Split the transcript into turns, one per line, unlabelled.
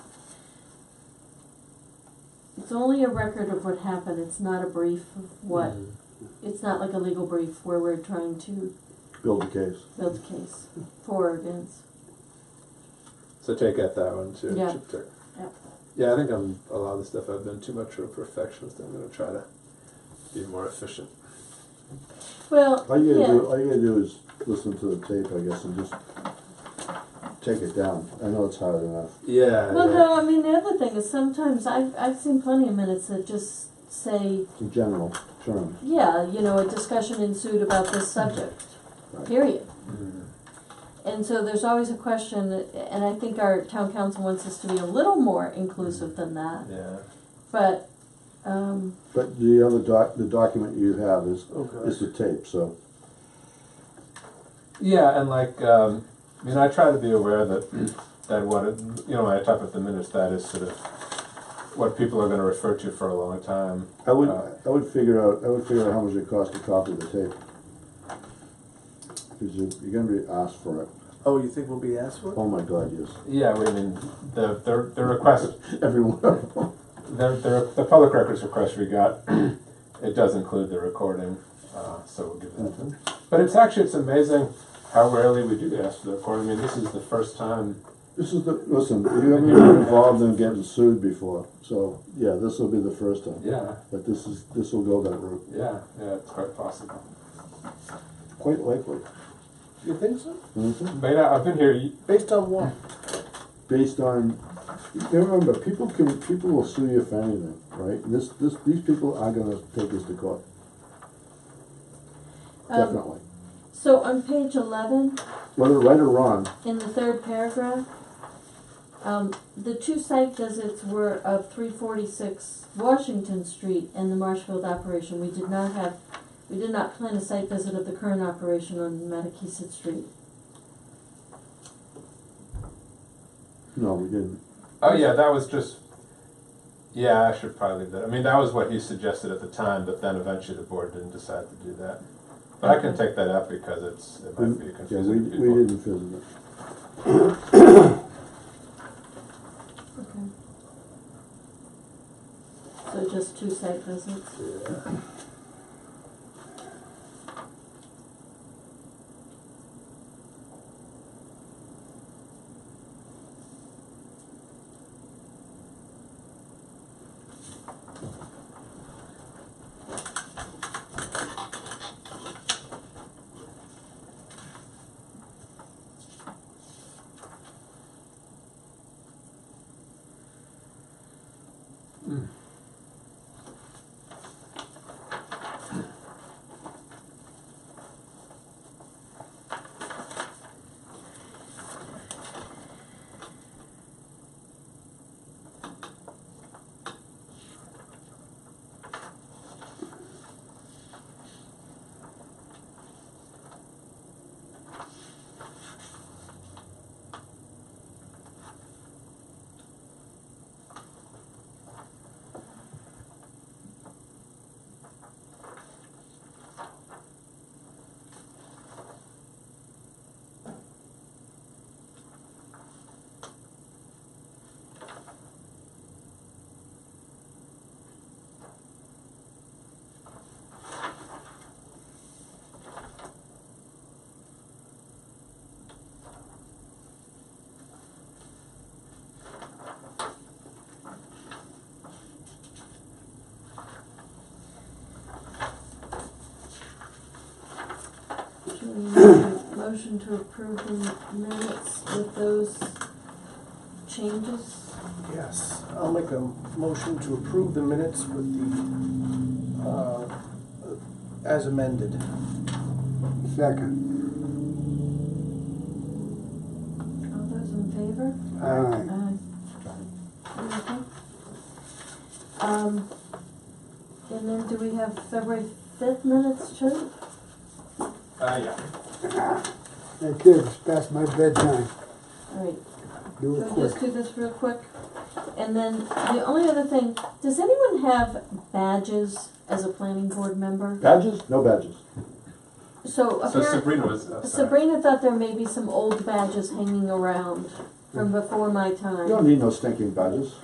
It's only a record of what happened, it's not a brief of what,
Mm.
it's not like a legal brief where we're trying to
build the case.
build a case for or against.
So take out that one too.
Yeah.
Chip Tuck.
Yeah.
Yeah, I think I'm a lot of the stuff I've been too much of a perfectionist. I'm going to try to be more efficient.
Well,
All you gotta do,
yeah,
all you gotta do is listen to the tape, I guess, and just take it down. I know it's hard enough.
Yeah.
well,
yeah.
no, I mean, the other thing is sometimes I've, I've seen plenty of minutes that just say,
It's a general term.
yeah, you know, a discussion ensued about this subject,
Right.
period.
Mm.
And so there's always a question, and I think our town council wants us to be a little more inclusive than that,
Yeah.
but, um,
But the other doc, the document you have is,
Oh,
Okay.
is the tape, so
Yeah, and like, um, I mean, I try to be aware that that what it, you know when I talk about the minutes, that is sort of what people are going to refer to for a long time.
I would,
Uh,
I would figure out, I would figure out how much it costs to copy the tape. Cause you, you're gonna be asked for it.
Oh, you think we'll be asked for it?
Oh my God, yes.
Yeah, we I mean the the, the request
Everyone.
The, the, the public records request we got, it does include the recording, uh, so we'll give that to But it's actually, it's amazing how rarely we do get asked for the recording. I mean, this is the first time.
This is the, listen, you haven't been involved in getting sued before, so, yeah, this will be the first time.
Yeah,
But this is, this will go that route,
yeah, yeah, it's quite possible.
quite likely.
You think so?
Mhm.
But yeah, I've been here, y-
Based on what?
Based on, you remember, people can, people will sue you for anything, right? This, this, these people are gonna take this to court,
um,
definitely.
so on page eleven,
Whether right or wrong,
In the third paragraph, um, the two site visits were of three forty-six Washington Street and the Marshfield operation. We did not have, we did not plan a site visit of the current operation on Matakeesit Street.
no, we didn't.
oh yeah, that was just, yeah, I should probably leave that. I mean, that was what he suggested at the time, but then eventually the board didn't decide to do that. But I can take that out because it's, it
We-
might be
Yeah, we,
confusing to
we
people.
didn't visit it.
Okay. So just two site visits.
Yeah.
Should we make a Motion to approve the minutes with those changes.
Yes. I'll make a motion to approve the minutes with the, uh, as amended.
Second.
All those in favor?
Aye.
Aye. Okay. Um, and then do we have February fifth minutes, Chip?
Uh, yeah.
Hey kids, it's past my bedtime.
Alright,
Do it
so just
quick.
do this real quick. And then the only other thing, does anyone have badges as a planning board member?
Badges? No badges.
So
So
apparently,
Sabrina was, oh, sorry.
Sabrina thought there
Hmm.
may be some old badges hanging around from before my time.
You don't need no stinking badges.